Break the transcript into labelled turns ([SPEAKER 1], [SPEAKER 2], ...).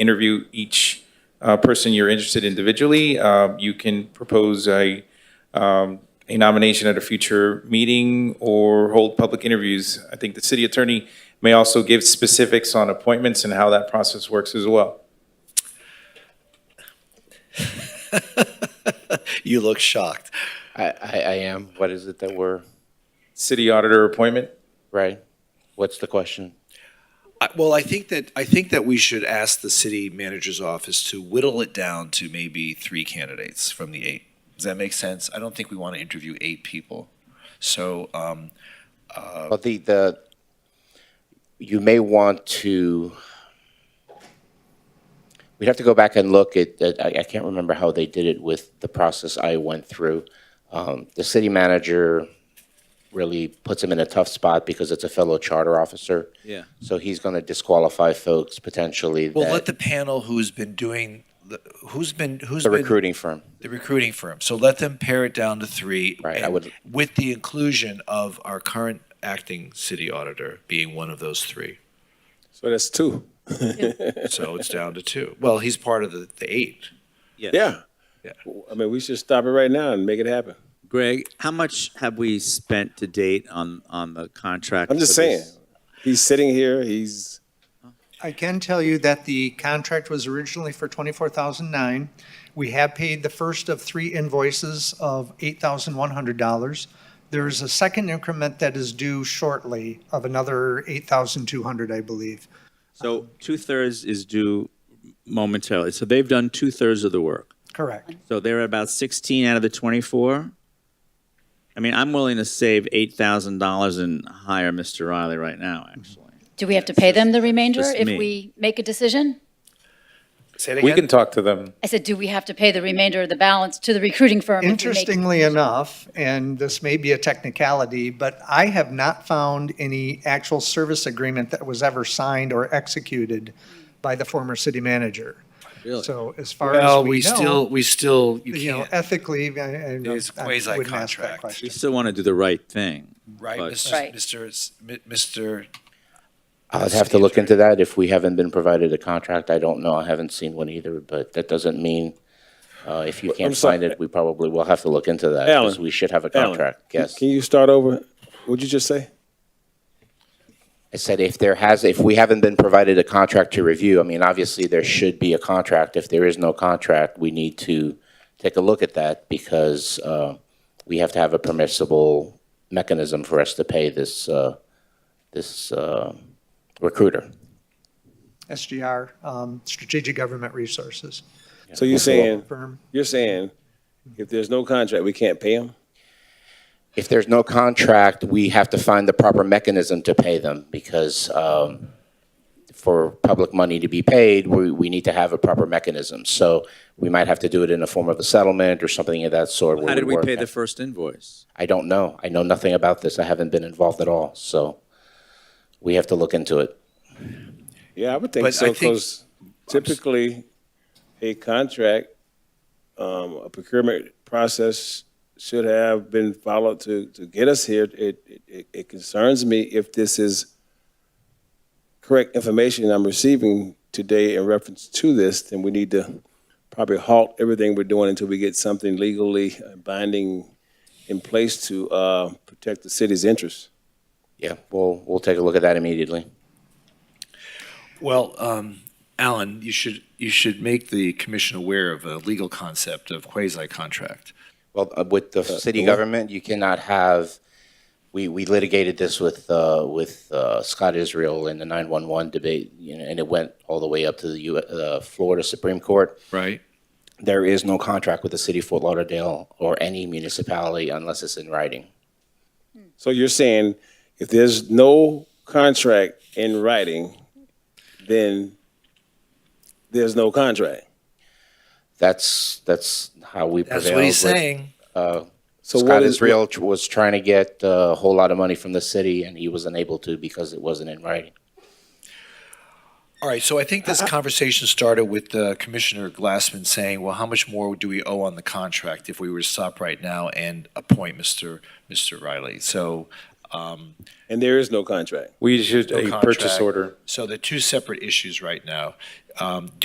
[SPEAKER 1] interview each uh, person you're interested individually. Uh, You can propose a, um, a nomination at a future meeting or hold public interviews. I think the city attorney may also give specifics on appointments and how that process works as well.
[SPEAKER 2] You look shocked.
[SPEAKER 3] I, I, I am. What is it that we're,
[SPEAKER 1] City auditor appointment?
[SPEAKER 3] right? What's the question?
[SPEAKER 2] I- Well, I think that, I think that we should ask the city manager's office to whittle it down to maybe three candidates from the eight. Does that make sense? I don't think we want to interview eight people. So, um,
[SPEAKER 3] Well, the, the, you may want to, we'd have to go back and look at, at- I, I can't remember how they did it with the process I went through. Um, the city manager really puts him in a tough spot because it's a fellow charter officer.
[SPEAKER 4] Yeah.
[SPEAKER 3] So he's going to disqualify folks potentially
[SPEAKER 2] well, let the
[SPEAKER 3] that,
[SPEAKER 2] panel who's been doing, the- who's been, who's
[SPEAKER 3] the
[SPEAKER 2] been.
[SPEAKER 3] recruiting firm.
[SPEAKER 2] The recruiting firm. So let them pare it down to three.
[SPEAKER 3] Right, I
[SPEAKER 2] and
[SPEAKER 3] would-
[SPEAKER 2] With the inclusion of our current acting city auditor being one of those three.
[SPEAKER 5] So that's two.
[SPEAKER 2] So it's down to two. Well, he's part of the, the eight.
[SPEAKER 5] Yeah.
[SPEAKER 2] Yeah.
[SPEAKER 5] I mean, we should stop it right now and make it happen.
[SPEAKER 4] Greg, how much have we spent to date on, on the contract?
[SPEAKER 5] I'm just
[SPEAKER 4] for
[SPEAKER 5] saying.
[SPEAKER 4] this?
[SPEAKER 5] He's sitting here. He's
[SPEAKER 6] I can tell you that the contract was originally for twenty-four thousand nine. We have paid the first of three invoices of eight thousand one hundred dollars. There's a second increment that is due shortly of another eight thousand two hundred, I believe.
[SPEAKER 4] So two-thirds is due momentarily. So they've done two-thirds of the work.
[SPEAKER 6] Correct.
[SPEAKER 4] So they're at about 16 out of the 24. I mean, I'm willing to save $8,000 and hire Mr. Riley right now, actually.
[SPEAKER 7] Do we have to pay them the remainder
[SPEAKER 4] just
[SPEAKER 7] if
[SPEAKER 4] me.
[SPEAKER 7] we make a decision?
[SPEAKER 2] Say it again.
[SPEAKER 1] We can talk to them.
[SPEAKER 7] I said, do we have to pay the remainder of the balance to the recruiting firm? if we make-
[SPEAKER 6] Interestingly enough, and this may be a technicality, but I have not found any actual service agreement that was ever signed or executed by the former city manager. So as far
[SPEAKER 2] Well,
[SPEAKER 6] as
[SPEAKER 2] we
[SPEAKER 6] we
[SPEAKER 2] still,
[SPEAKER 6] know,
[SPEAKER 2] we still, you
[SPEAKER 6] you know,
[SPEAKER 2] can't,
[SPEAKER 6] ethically, I, I don't-
[SPEAKER 2] It's
[SPEAKER 6] I wouldn't ask that
[SPEAKER 2] quasi-contract.
[SPEAKER 6] question.
[SPEAKER 4] We still want to do the right thing.
[SPEAKER 2] right,
[SPEAKER 4] but-
[SPEAKER 7] Right.
[SPEAKER 2] Mr. Mr. S- Mi- Mr.
[SPEAKER 3] I'd have to look into that. If we haven't been provided a contract, I don't know. I haven't seen one either, but that doesn't mean, uh, if you can't
[SPEAKER 5] sorry.
[SPEAKER 3] find it, we probably will have to look into that.
[SPEAKER 5] Alan.
[SPEAKER 3] Because we should have a
[SPEAKER 5] Alan,
[SPEAKER 3] contract, yes.
[SPEAKER 5] Can you start over? What'd you just say?
[SPEAKER 3] I said if there has, if we haven't been provided a contract to review, I mean, obviously there should be a contract. If there is no contract, we need to take a look at that because, uh, we have to have a permissible mechanism for us to pay this, uh, this, uh, recruiter.
[SPEAKER 6] SGR, um, Strategic Government Resources
[SPEAKER 5] So you're saying
[SPEAKER 6] firm.
[SPEAKER 5] you're saying if there's no contract, we can't pay him.
[SPEAKER 3] if there's no contract, we have to find the proper mechanism to pay them because um, for public money to be paid, we, we need to have a proper mechanism. So we might have to do it in the form of a settlement or something of that sort. where
[SPEAKER 4] How did we
[SPEAKER 3] work
[SPEAKER 4] pay
[SPEAKER 3] that-
[SPEAKER 4] the first invoice?
[SPEAKER 3] I don't know. I know nothing about this. I haven't been involved at all. So we have to look into it.
[SPEAKER 5] Yeah, I would think
[SPEAKER 2] But I
[SPEAKER 5] so.
[SPEAKER 2] think-
[SPEAKER 5] Because typically, a contract, um, a procurement process should have been followed to to get us here. It it- it, it concerns me if this is correct information I'm receiving today in reference to this. Then we need to probably halt everything we're doing until we get something legally binding in place to uh, protect the city's interests.
[SPEAKER 3] Yeah, we'll, we'll take a look at that immediately.
[SPEAKER 2] Well, um, Alan, you should, you should make the commission aware of a legal concept of quasi-contract.
[SPEAKER 3] Well, uh, with the city government, you cannot have, we, we litigated this with, uh, with, uh, Scott Israel in the 911 debate, you know, and it went all the way up to the U, uh, Florida Supreme Court.
[SPEAKER 2] Right.
[SPEAKER 3] There is no contract with the city of Fort Lauderdale or any municipality unless it's in writing.
[SPEAKER 5] So you're saying if there's no contract in writing, then there's no contract.
[SPEAKER 3] That's, that's how we prevailed.
[SPEAKER 2] That's what he's
[SPEAKER 3] with- uh,
[SPEAKER 2] saying.
[SPEAKER 5] So
[SPEAKER 3] Scott
[SPEAKER 5] what is
[SPEAKER 3] Israel tr- was trying to get uh, a whole lot of money from the city and he was unable to because it wasn't in writing.
[SPEAKER 2] All right, so I think this conversation started with uh, Commissioner Glassman saying, well, how much more do we owe on the contract if we were to stop right now and appoint Mr. Mr. Riley? So, um,
[SPEAKER 5] And there is no contract.
[SPEAKER 1] We issued
[SPEAKER 2] No
[SPEAKER 1] a purchase
[SPEAKER 2] contract.
[SPEAKER 1] order.
[SPEAKER 2] so the two separate issues right now. Um,